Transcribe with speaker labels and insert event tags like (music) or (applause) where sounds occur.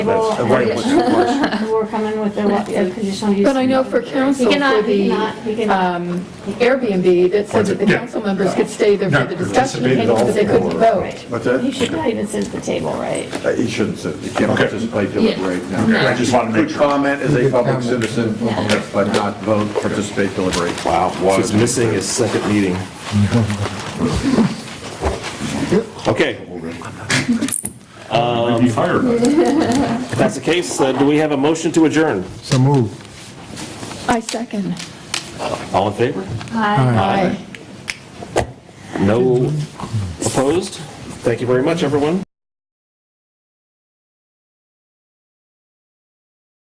Speaker 1: That's
Speaker 2: Well,
Speaker 1: the right one, of
Speaker 2: (laughs)
Speaker 1: course.
Speaker 2: We're coming with a lot- a conditional use.
Speaker 3: But I know for
Speaker 2: He
Speaker 3: council, for
Speaker 2: cannot, he
Speaker 3: the
Speaker 2: cannot, he cannot.
Speaker 3: um, Airbnb, that said that the
Speaker 4: Yeah.
Speaker 3: council members could stay there for
Speaker 4: Not
Speaker 3: the discussion,
Speaker 4: participate at all,
Speaker 3: but they couldn't
Speaker 4: or-
Speaker 3: vote.
Speaker 2: Right.
Speaker 1: What's that?
Speaker 2: He should not even sit at the table, right?
Speaker 1: Uh, He shouldn't sit, he can't
Speaker 4: Okay.
Speaker 1: participate till it
Speaker 3: Yeah.
Speaker 1: right now.
Speaker 4: Okay, I just wanted to make
Speaker 1: Could
Speaker 4: sure.
Speaker 1: comment as a public
Speaker 5: Comment.
Speaker 1: citizen, but not vote, participate, deliberate. Wow,
Speaker 6: She's missing his second meeting. Okay,
Speaker 4: You'd be fired.
Speaker 6: if that's the case, uh, do we have a motion to adjourn?
Speaker 5: So move.
Speaker 3: I second.
Speaker 6: All in favor?
Speaker 3: Aye.
Speaker 6: No opposed? Thank you very much, everyone.